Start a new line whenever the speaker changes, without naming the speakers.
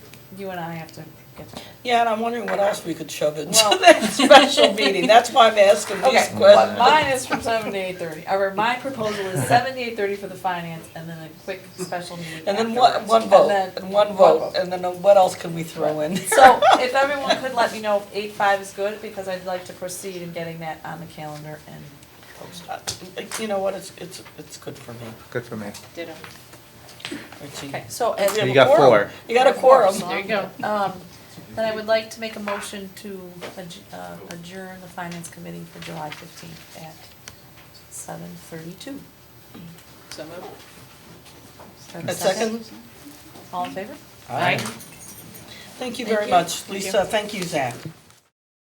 you and I have to get to
Yeah, and I'm wondering what else we could shove into
Well-
that special meeting. That's why I'm asking these
Okay.
questions.
Mine is from seven to eight thirty, or my proposal is seven to eight thirty for the finance, and then a quick special meeting
And then one,
afterwards.
one vote,
then
and one vote, and then what else can we throw in?
So if everyone could let me know if eight five is good, because I'd like to proceed in getting that on the calendar and
You know what, it's, it's, it's good for me.
Good for me.
ditto.
Richie.
Okay, so
We
as.
have
You
a
got
quorum.
four.
You got a quorum.
There you go. Um, then I would like to make a motion to adj- uh, adjourn the finance committee for July fifteenth at seven thirty-two.
So moved.
A second?
All in favor?
Thank you
Thank
very
you.
much.
Thank you.
Lisa, thank you, Zach.